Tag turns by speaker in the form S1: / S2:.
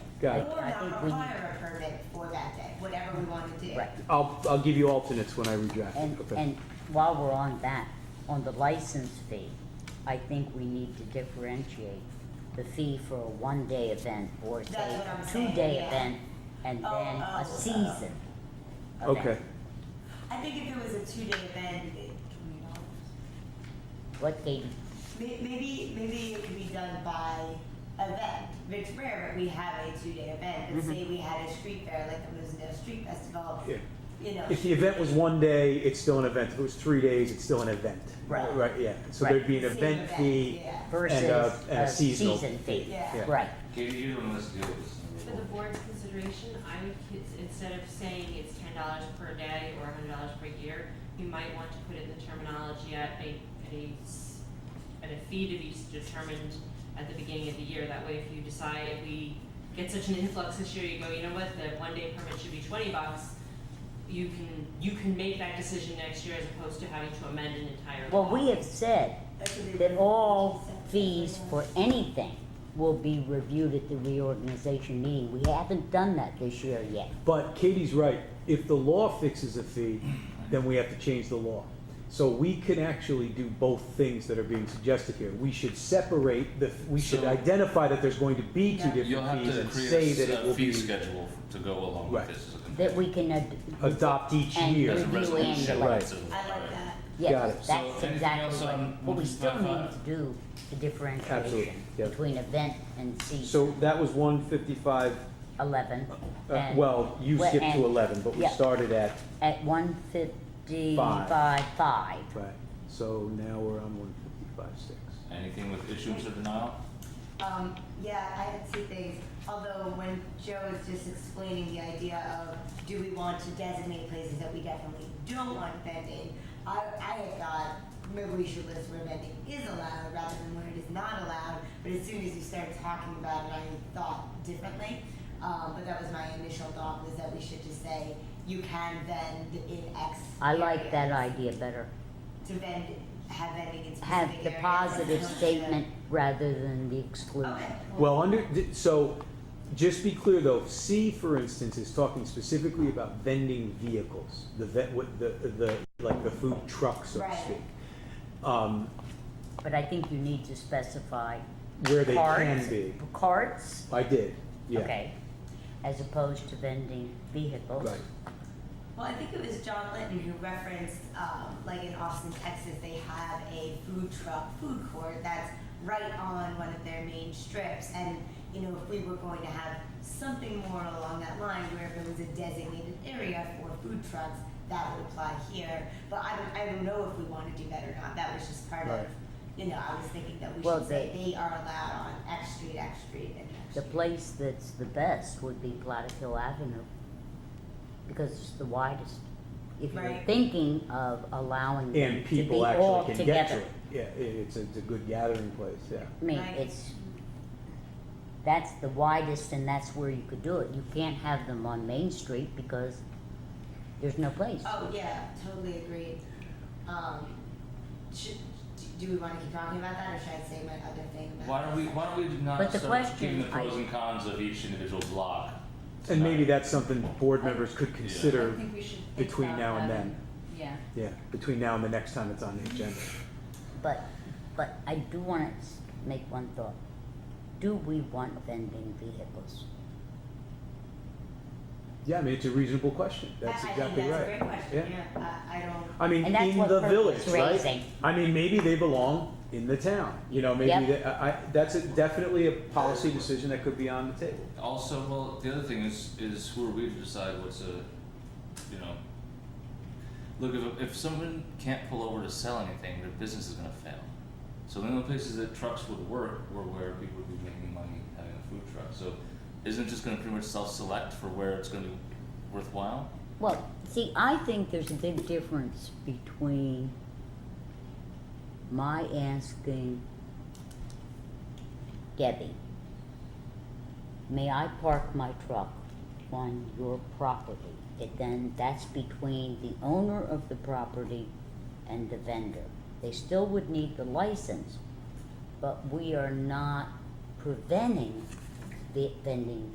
S1: Got it.
S2: Or not require a permit for that day, whatever we want to do.
S3: Right.
S1: I'll, I'll give you alternates when I reject.
S3: And,
S1: Okay.
S3: and while we're on that, on the license fee, I think we need to differentiate the fee for a one-day event or
S2: That's
S3: say
S2: what I'm
S3: a
S2: saying,
S3: two-day
S2: yeah.
S3: event and then
S2: Oh,
S3: a
S2: oh, oh.
S3: season. event.
S1: Okay,
S2: I think if it was a two-day event, it, you know,
S3: What they,
S2: may- maybe, maybe it could be done by event. It's rare, but we have a two-day event, but say we had a street fair, like the Rosendale Street Festival,
S1: Mm-hmm. yeah.
S2: you know.
S1: If the event was one day, it's still an event. If it was three days, it's still an event.
S3: Right.
S1: Right, yeah. So
S3: Right.
S1: there'd be an
S2: same
S1: event fee.
S2: yeah.
S3: versus
S1: and a
S3: a
S1: seasonal
S3: season fee,
S2: Yeah.
S1: Yeah.
S3: right,
S4: Katie, you don't let's deal with this.
S5: For the board's consideration, I would, cons- instead of saying it's ten dollars per day or hundred dollars per year, you might want to put in the terminology at a, at a, s- at a fee to be s- determined at the beginning of the year. That way, if you decide, if we get such an influx this year, you go, you know what, the one-day permit should be twenty bucks. You can, you can make that decision next year as opposed to having to amend an entire
S3: well,
S5: law.
S3: we have said
S2: That should be-
S3: that all fees for anything will be reviewed at the reorganization meeting, we haven't done that this year yet.
S1: But Katie's right. If the law fixes a fee, then we have to change the law. So we can actually do both things that are being suggested here. We should separate the, we should
S4: So-
S1: identify that there's going to be two
S2: Yeah.
S4: You'll
S1: different
S4: have
S1: fees
S4: to
S1: and say
S4: create
S1: that it
S4: a
S1: will
S4: s- fee
S1: be
S4: schedule to go along
S1: Right.
S4: with this as a complaint.
S3: that we can ad-
S1: adopt each
S3: And
S1: year.
S4: As a
S3: review
S4: resolution.
S3: annually.
S1: Right.
S4: so-
S2: I like that.
S1: Got it.
S3: Yes,
S4: So
S3: that's
S4: anything
S3: exactly
S4: else on
S3: right, but we still need
S4: 155?
S3: to do the
S1: Absolutely,
S3: differentiation
S1: yeah.
S3: between event and season,
S1: So that was one fifty-five,
S3: eleven,
S1: uh,
S3: and.
S1: well, you
S3: Well,
S1: skipped to
S3: and-
S1: eleven, but we
S3: yeah.
S1: started at,
S3: At one fifty-five, five,
S1: right, so now we're on one fifty-five, six.
S4: Anything with issuance or denial?
S2: Um, yeah, I had two things, although when Joe was just explaining the idea of, do we want to designate places that we definitely don't want vending? I, I had thought, maybe we should list where vending is allowed rather than where it is not allowed, but as soon as you started talking about it, I thought differently. Um, but that was my initial thought, was that we should just say, you can vend in X.
S3: I like
S2: area."
S3: that idea better.
S2: To vend, have vending in specific
S3: Have the
S2: areas.
S3: positive
S2: Okay.
S3: statement rather than the
S2: Okay,
S3: exclusion.
S2: cool.
S1: Well, under, th- so, just be clear though, C, for instance, is talking specifically about vending vehicles, the vet, what, the, the, like the food truck, so to
S2: Right.
S1: speak. Um,
S3: But I think you need to specify
S1: where they
S3: carts,
S1: can be,
S3: carts,
S1: I did, yeah,
S3: okay, as opposed to vending vehicles.
S1: right,
S2: Well, I think it was John Litton who referenced, um, like in Austin, Texas, they have a food truck food court that's right on one of their main strips. And, you know, if we were going to have something more along that line where if it was a designated area for food trucks, that would apply here. But I don't, I don't know if we want to do that or not. That was just part of,
S1: Right.
S2: you know, I was thinking that we
S3: Well,
S2: should say
S3: they-
S2: they are allowed on X Street, X Street, and X
S3: The
S2: Street.
S3: place that's the best would be Platic Hill Avenue, because it's the widest. If you're
S2: Right.
S3: thinking of allowing them
S1: and
S3: to be
S1: people
S3: all
S1: actually can get to
S3: together,
S1: it, yeah, i- it's, a- it's a good gathering place, yeah.
S3: I mean,
S2: Right.
S3: it's, that's the widest and that's where you could do it. You can't have them on Main Street because there's no place.
S2: Oh, yeah, totally agreed. Um, should, do we wanna keep talking about that, or should I say my other thing about?
S4: Why don't we, why don't we not
S3: But the
S4: start
S3: question,
S4: keeping the pros
S3: I-
S4: and cons of each individual block?
S1: And maybe
S4: tonight?
S1: that's something board members could
S5: I
S1: consider
S5: think we should think
S1: between
S5: about
S1: now and
S5: that.
S1: then.
S5: Yeah.
S1: Yeah, between now and the next time it's on the agenda.
S3: But, but I do wanna s- make one thought. Do we want vending vehicles?
S1: Yeah, I mean, it's a reasonable question. That's
S2: I-
S1: exactly
S2: I
S1: right.
S2: think that's a great question,
S1: Yeah.
S2: yeah, I, I don't.
S1: I mean,
S3: And that's
S1: in
S3: what
S1: the
S3: Kirk
S1: village,
S3: was
S1: right?
S3: raising.
S1: I mean, maybe they belong in the town, you know, maybe
S3: Yep.
S1: that, I, I- that's a- definitely a policy decision that could be on the table.
S4: Also, well, the other thing is, is who are we to decide what's a, you know, look if if someone can't pull over to sell anything, their business is gonna fail. So the only places that trucks would work were where people would be making money having a food truck. So isn't it just gonna pretty much self-select for where it's gonna be worthwhile?
S3: Well, see, I think there's a big difference between my asking Debbie, may I park my truck on your property? It then, that's between the owner of the property and the vendor. They still would need the license, but we are not preventing the vending